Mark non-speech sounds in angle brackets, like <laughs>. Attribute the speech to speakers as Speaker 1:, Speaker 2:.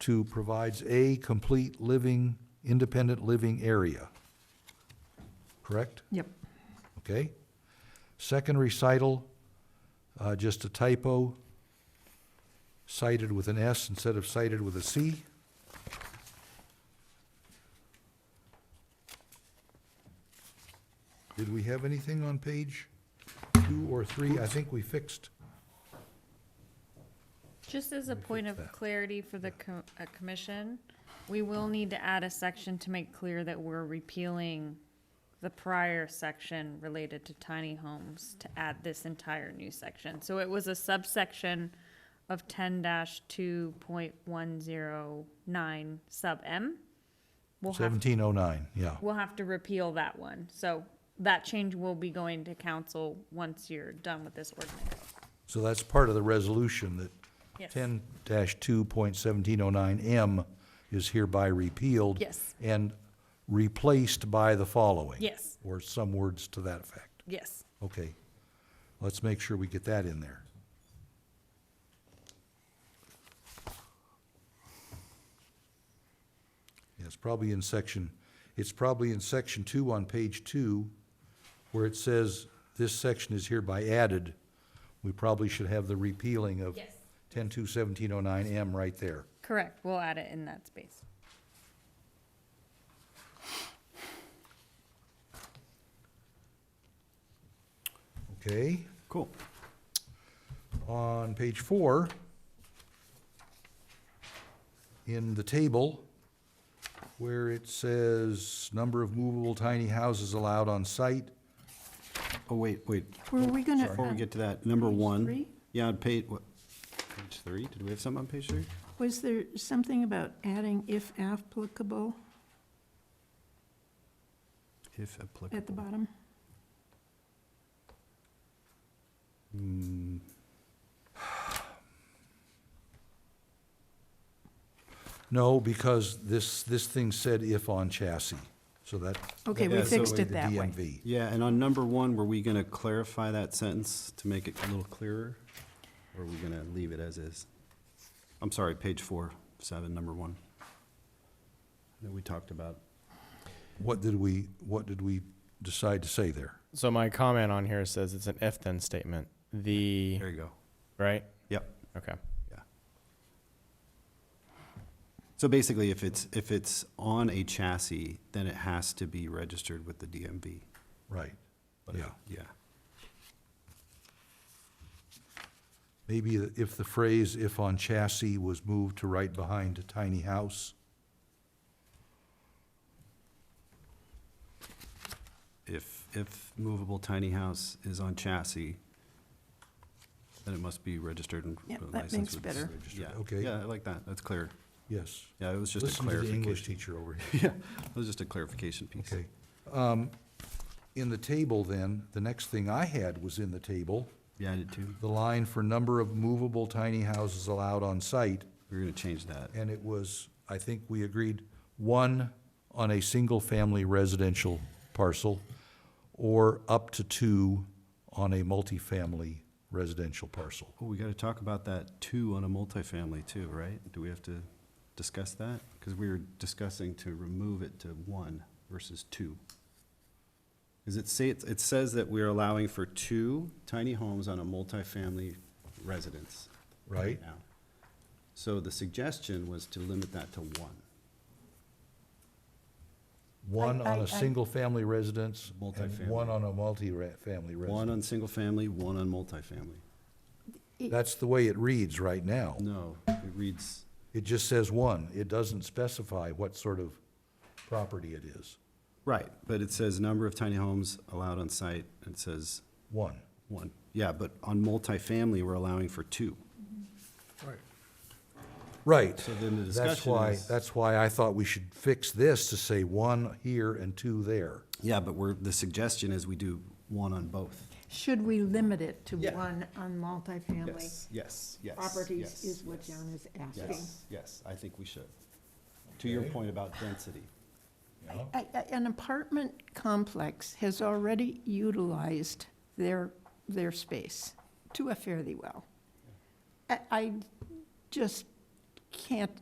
Speaker 1: to provides a complete living, independent living area. Correct?
Speaker 2: Yep.
Speaker 1: Okay? Second recital, uh, just a typo, cited with an S instead of cited with a C. Did we have anything on page two or three? I think we fixed.
Speaker 3: Just as a point of clarity for the co- uh, commission, we will need to add a section to make clear that we're repealing the prior section related to tiny homes to add this entire new section. So it was a subsection of ten two point one zero nine sub M. We'll have,
Speaker 1: Seventeen oh nine, yeah.
Speaker 3: we'll have to repeal that one. So that change will be going to council once you're done with this ordinance.
Speaker 1: So that's part of the resolution that
Speaker 3: Yes.
Speaker 1: ten two point seventeen oh nine M is hereby repealed.
Speaker 3: Yes.
Speaker 1: And replaced by the following.
Speaker 3: Yes.
Speaker 1: Or some words to that effect.
Speaker 3: Yes.
Speaker 1: Okay. Let's make sure we get that in there. Yeah, it's probably in section, it's probably in section two on page two, where it says, this section is hereby added. We probably should have the repealing of
Speaker 3: Yes.
Speaker 1: ten two seventeen oh nine M right there.
Speaker 3: Correct, we'll add it in that space.
Speaker 1: Okay?
Speaker 4: Cool.
Speaker 1: On page four, in the table, where it says number of movable tiny houses allowed on site,
Speaker 4: Oh, wait, wait,
Speaker 2: Were we gonna?
Speaker 4: before we get to that, number one.
Speaker 2: uh, three?
Speaker 4: Yeah, on page, what, page three? Did we have something on page three?
Speaker 2: Was there something about adding if applicable
Speaker 4: If applicable.
Speaker 2: at the bottom?
Speaker 4: Mm,
Speaker 1: no, because this, this thing said if on chassis, so that.
Speaker 2: Okay,
Speaker 4: Yeah,
Speaker 2: we
Speaker 4: so
Speaker 2: fixed
Speaker 1: the
Speaker 2: it that way.
Speaker 1: DMV.
Speaker 4: Yeah, and on number one, were we gonna clarify that sentence to make it a little clearer? Or are we gonna leave it as is? I'm sorry, page four, seven, number one. That we talked about.
Speaker 1: What did we, what did we decide to say there?
Speaker 5: So my comment on here says it's an if then statement. The
Speaker 4: There you go.
Speaker 5: right?
Speaker 4: Yep.
Speaker 5: Okay.
Speaker 4: Yeah. So basically, if it's, if it's on a chassis, then it has to be registered with the DMV.
Speaker 1: Right,
Speaker 4: But if-
Speaker 1: yeah.
Speaker 4: Yeah.
Speaker 1: Maybe if the phrase if on chassis was moved to right behind tiny house,
Speaker 4: If, if movable tiny house is on chassis, then it must be registered and
Speaker 2: Yep,
Speaker 4: uh,
Speaker 2: that
Speaker 4: licensed
Speaker 2: makes
Speaker 4: with.
Speaker 2: better.
Speaker 4: Yeah,
Speaker 1: Okay.
Speaker 4: Yeah, I like that. That's clear.
Speaker 1: yes.
Speaker 4: Yeah, it was just a
Speaker 1: Listen to the English
Speaker 4: clarification. <laughs>
Speaker 1: teacher over here.
Speaker 4: Yeah, it was just a clarification piece.
Speaker 1: Okay. Um, In the table then, the next thing I had was in the table,
Speaker 4: Yeah, I did too.
Speaker 1: the line for number of movable tiny houses allowed on site,
Speaker 4: We We're gonna change that.
Speaker 1: and it was, I think we agreed, one on a single-family residential parcel, or up to two on a multifamily residential parcel.
Speaker 4: Oh, we gotta talk about that two on a multifamily too, right? Do we have to discuss that? Because we were discussing to remove it to one versus two. Does it say, it says that we're allowing for two tiny homes on a multifamily residence.
Speaker 1: Right.
Speaker 4: now. So the suggestion was to limit that to one.
Speaker 1: One
Speaker 2: I-
Speaker 1: on
Speaker 2: I- I-
Speaker 1: a single-family residence, and
Speaker 4: Multifamily.
Speaker 1: one on a multi-family
Speaker 4: One
Speaker 1: residence.
Speaker 4: on single family, one on multifamily.
Speaker 1: That's the way it reads right now.
Speaker 4: No, it reads,
Speaker 1: It just says one. It doesn't specify what sort of property it is.
Speaker 4: right, but it says number of tiny homes allowed on site, and it says
Speaker 1: One.
Speaker 4: One, yeah, but on multifamily, we're allowing for two.
Speaker 1: Right.
Speaker 4: So then the
Speaker 1: That's
Speaker 4: discussion
Speaker 1: why,
Speaker 4: is-
Speaker 1: that's why I thought we should fix this to say one here and two there.
Speaker 4: Yeah, but we're, the suggestion is we do one on both.
Speaker 2: Should we limit it to
Speaker 4: Yeah.
Speaker 2: one on multifamily
Speaker 4: Yes, yes, yes.
Speaker 2: properties
Speaker 4: yes,
Speaker 2: is what
Speaker 4: yes,
Speaker 2: John is asking.
Speaker 4: Yes, yes, I think we should. To your point about density.
Speaker 2: I- I- An apartment complex has already utilized their, their space to a fairly well. I, I just can't